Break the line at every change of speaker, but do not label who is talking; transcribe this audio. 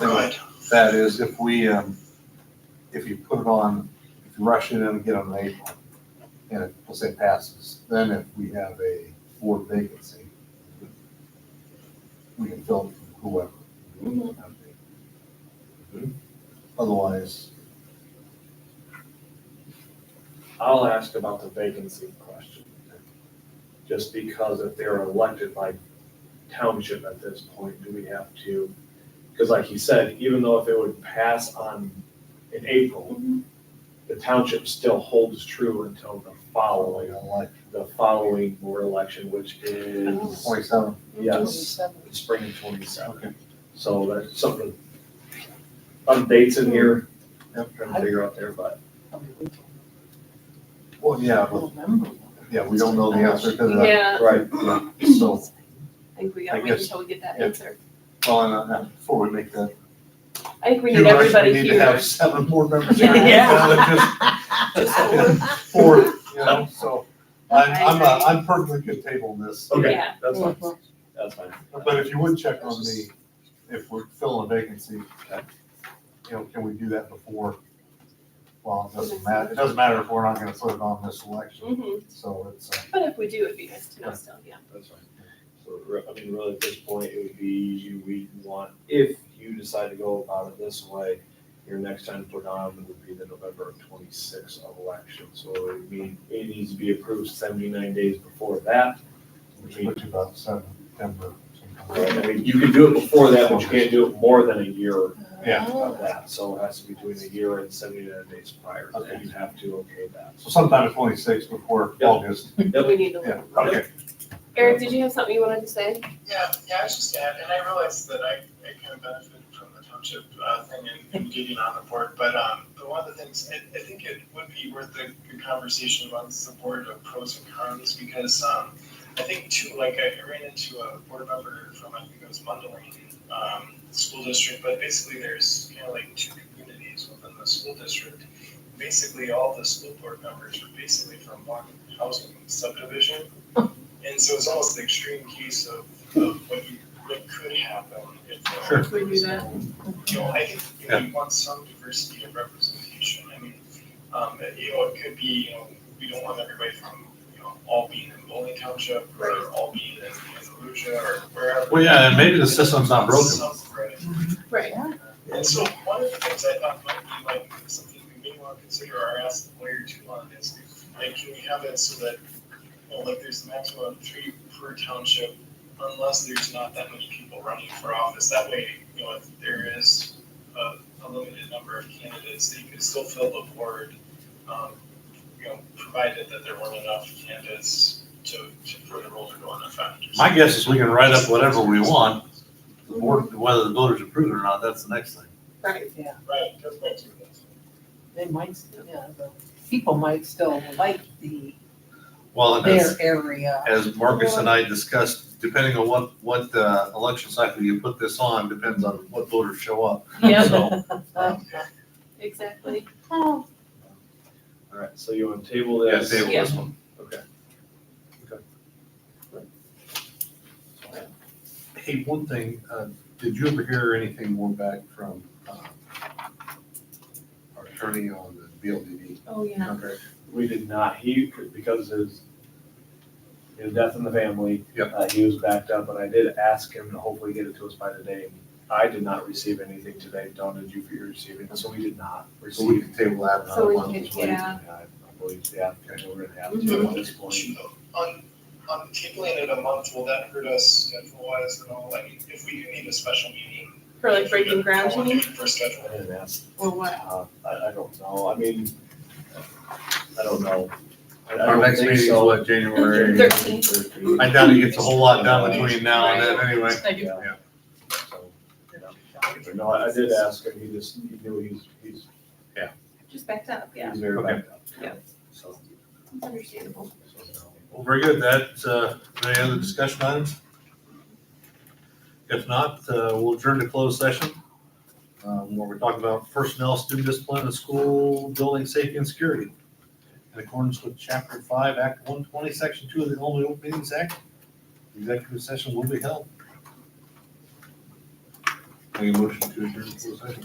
that is if we, um, if you put it on, if you rush it in and get it in April, and it, let's say passes, then if we have a board vacancy, we can fill it from whoever. Otherwise,
I'll ask about the vacancy question. Just because if they're elected by township at this point, do we have to? Because like you said, even though if it would pass on in April, the township still holds true until the
following
following,
on like
the following board election, which is
twenty-seven,
Yes. the spring of twenty-seven.
Okay.
So there's something, updates in here, I'm
Yep.
trying to figure out there, but
well, yeah, but,
November.
yeah, we don't know the answer to that,
Yeah,
right,
so.
I think we
I
gotta wait
guess-
until we get that
yeah.
answer.
Well, and, uh, before we make that.
I think we
huge
need
rush,
everybody
We need to have
here.
seven board members.
Yeah.
here,
Yeah.
rather than just- Four, you know, so I'm,
I
I'm, uh,
agree.
I'm perfectly good tabling this,
okay,
Yeah.
that's fine, that's fine.
but if you would check on the, if we're filling a vacancy, uh, you know, can we do that before? Well, it doesn't matter, it doesn't matter if we're not gonna put it on this election,
Mhm.
so it's, uh,
But if we do, it'd be nice to know still, yeah.
That's fine. So, re- I mean, really, at this point, it would be you, we want, if you decide to go about it this way, your next time for Don would be the November twenty-sixth election, so it would mean, it needs to be approved seventy-nine days before that.
which would be about September.
Right, I mean, you could do it before that, but you can't do it more than a year
Yeah,
Oh.
of that, so it has to be between a year and seventy-nine days prior,
Okay.
then you have to okay that.
so sometime the twenty-sixth before
Yep.
August,
We need to.
yeah,
look.
okay.
Eric, did you have something you wanted to say?
Yeah, yeah, I was just sad, and I realized that I, I kind of benefited from the township uh, thing and, and getting on the board, but um, but one of the things, I, I think it would be worth a good conversation amongst the board of pros and cons, because um, I think too, like I ran into a board member from, I think it was Mundaline, um, school district, but basically there's kind of like two communities within the school district. Basically, all the school board members are basically from one housing subdivision. And so it's almost the extreme case of, of what you, what could happen if. uh,
Sure.
If we do that.
You know, I think you know, you want some diversity of representation, I mean, um, you know, it could be, you know, we don't want everybody from, you know, all being in Bowling Township, or all being in Andalusia, or wherever.
Well, yeah, and maybe the system's not broken.
Some- right.
Right.
And so one of the things I thought might be like something we may want to consider or ask the lawyer too on is like, can we have it so that, you know, like there's a maximum of three per township unless there's not that many people running for office. That way, you know, if there is a, a limited number of candidates, that you can still fill the board. Um, you know, provided that there weren't enough candidates to, to, for the role to go into effect.
My guess is we can write up whatever we want, the board, whether the voters approve it or not, that's the next thing.
Right.
Right, that's what I'm doing.
They might, yeah, the people might still like the,
Well, and
their
as,
area.
as Marcus and I discussed, depending on what, what, uh, election cycle you put this on, depends on what voters show up.
Yeah,
So,
exactly.
Oh,
All right, so you want to table
yeah,
this?
table this one.
Okay. Okay.
Hey, one thing, uh, did you ever hear anything more back from, uh, our attorney on the BLDD?
Oh, yeah.
Okay.
We did not. He, because his, his death in the family.
Yep.
Uh, he was backed up, and I did ask him to hopefully get it to us by today. I did not receive anything today. Don, did you receive it? So we Uh, did not
So we
receive.
can table that.
So we
another one.
can- yeah.
I believe, yeah, okay, we're gonna have
Mhm.
to at this point.
On, on tabling it a month, will that hurt us schedule wise and all, I mean, if we do need a special meeting?
For like breaking ground, you
I'll
mean?
do it For schedule.
I didn't ask.
Or what?
Uh, I, I don't know. I mean, I don't know. I- I
Our
don't
next
think
meeting is
so.
what, January?
Thirteenth.
I doubt he gets a whole lot done between now and then anyway.
I do.
Yeah. So, but No, I I did ask him, he just, he knew he's, he's,
Just backed up, yeah.
he's very
Okay.
backed up.
Yeah.
So,
It's understandable.
so,
Well, very good. That, uh, any other discussion items? If not, uh, we'll adjourn to closed session, um, where we're talking about personnel, student discipline, and school building safety and security. In accordance with chapter five, act one twenty, section two of the Illinois Open Meetings Act, the executive session will be held. Any motion to adjourn to closed session?